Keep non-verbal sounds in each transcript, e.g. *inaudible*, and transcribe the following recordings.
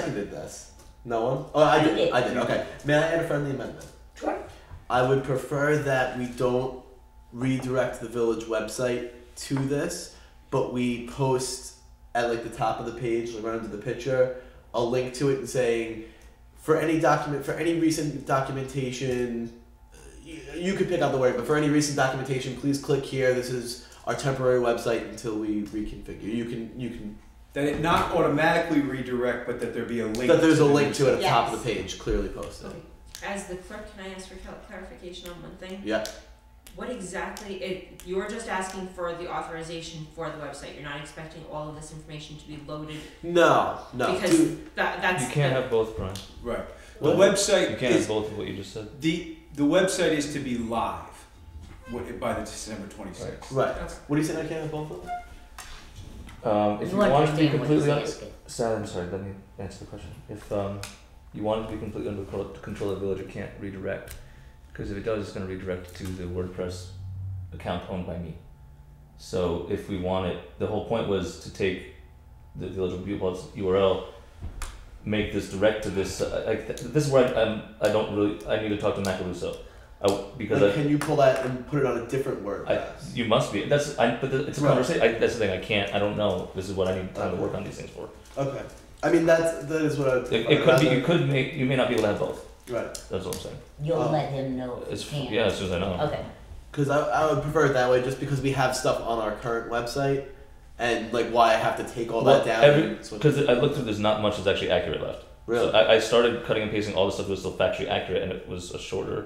Seconded this. No one? Oh, I I did. did. I did. Okay. May I add a friendly amendment? Sure. I would prefer that we don't redirect the village website to this, but we post at like the top of the page, like right under the picture, a link to it and saying, for any document, for any recent documentation, you, you could pick out the word, but for any recent documentation, please click here. This is our temporary website until we reconfigure. You can you can That it not automatically redirect, but that there be a link. that there's a to the link to it at the top of the Yes. page, clearly posted. Okay. As the clerk, can I ask for cal- clarification on one thing? Yeah. What exactly, it, you're just asking for the authorization for the website, you're not expecting all of this information to be loaded, No, no. because do- that, that's. You can't have both, Brian. Right. The What? You website can't have is both of what you just said. the the website is to be live wi- by the December twenty sixth. right. Okay. What do you say I can't have both of them? Um, if you understand wanted to be what completely he's under, asking. Sarah, I'm sorry. Let me answer the question. If um, you wanted to be completely under control, control of the village, it can't redirect, because if it does, it's going to redirect to the WordPress account owned by me. So if we want it, the whole point was to take the village of Bugle's URL, make this direct to this. Uh, like th- this is where I, I'm. I don't really. I need to talk to Macaluso, I w because Like, I. can you pull that and put it on a different word? I, you must be. That's I. But th- it's a Right. conversation. I, that's the thing. I can't. I don't know. This is what I need time to work on these things for. okay. I mean that's that is what I. It, it could be. You could make. You may not be able to have both. Right. That's what I'm saying. You'll Oh. let him know if It's, you can. yeah, as soon as I know. Okay. Because I, I would prefer it that way, just because we have stuff on our current website, and like why I have to take all that Well, down. every- and switch- Because I looked through. There's not much that's actually accurate left. So really. I, I started cutting and pasting all the stuff that was still factually accurate, and it was a shorter.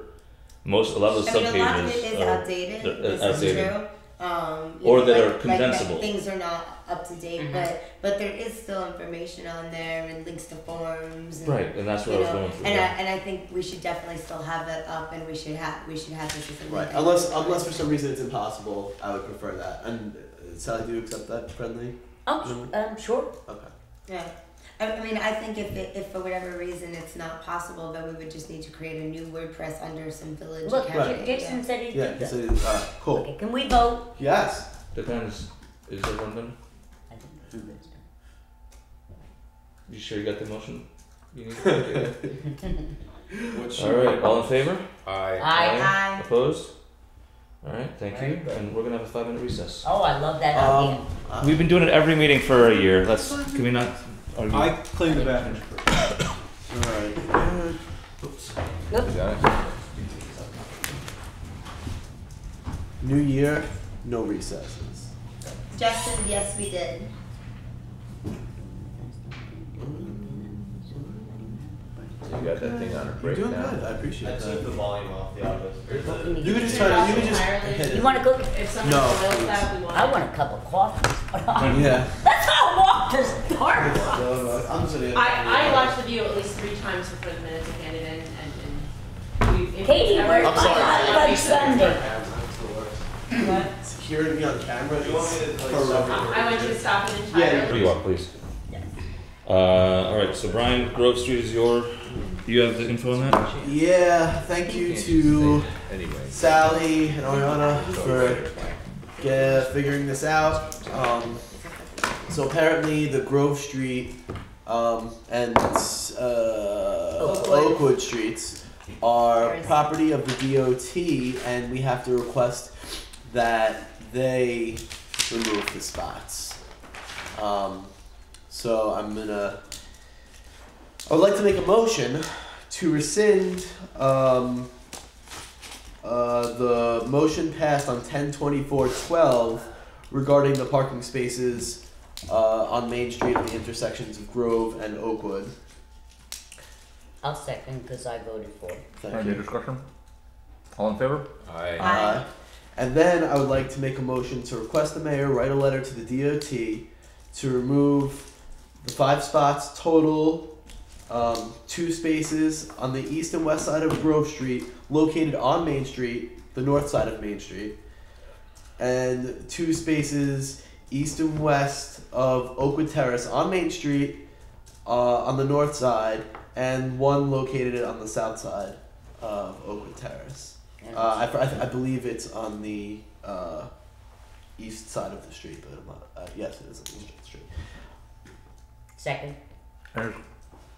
Most a lot of those I mean, a lot of subpages. it is are- outdated. they're- uh, This outdated. is true. Um, you Or know, that like, are like that condensable. things are not up to date, Mhm. but but there is still information on there and links to forms. And, right, and that's You what I was know, going through. and yeah. I and I think we should definitely still have that up, and we should have we should have this as a Right. link. Unless unless for some reason it's impossible, I would prefer that. And uh, Sally, do you accept that friendly? Oh, um, sure. Okay. Yeah. I I mean, I think if, it, if for whatever reason it's not possible, then we would just need to create a new WordPress under some village Look, account. Right. Jason said he Yeah. did So, that. uh, cool. Okay, can we vote? Yes. Depends. Is everyone done? I think he was done. You sure you got the motion? You need. What's *laughs* all right. All in favor? I Aye. Aye. Opposed? All right, thank you. Very good. And we're gonna have a five minute recess. Oh, I love that idea. Um, uh, We've been doing it every meeting for a year. Let's can we not? Argue? I clean the bathroom. all right. New year, no recesses. Justin, yes, we did. You got that thing on a You're break doing now. good. I appreciate I took that. the volume off the office. You could just try to. You could just hit it. You want to cook? If someone No. boils that, we want. I want a cup of coffee. *laughs* *laughs* Yeah. That's how I want to start. *laughs* I'm just I, I watched the video at least three times before the minutes and handed in, and, and we've. if Katie, ever- *laughs* where's I'm sorry. my hot fudge sundae? What? Hearing me on camera You want me to, is like, horrific. stop? I I want you to stop it Yeah, entirely. Where you are, please. Uh, all right. So Brian Grove Street is your. You have the info on that. Yeah, thank you to Sally and Ariana for get, figuring this out. Um, so apparently, the Grove Street um, and uh, Oh, Oakwood. Oakwood streets are There's- property of the DOT, and we have to request that they remove the spots. Um, so I'm gonna. I would like to make a motion to rescind um, uh, the motion passed on 102412 regarding the parking spaces uh, on Main Street at the intersections of Grove and Oakwood. I'll second because I voted for it. Thank you. discussion? All in favor? I, Uh, and then I would like to make a motion to request the mayor write a letter to the DOT to remove the five spots total, um, two spaces on the east and west side of Grove Street, located on Main Street, the north side of Main Street, and two spaces east and west of Oakwood Terrace on Main Street, uh, on the north side, and one located on the south side of Oakwood Terrace. Uh, I, I, I believe it's on the uh, east side of the street, but I'm not, uh, yes, it is on the east side of the street. Second.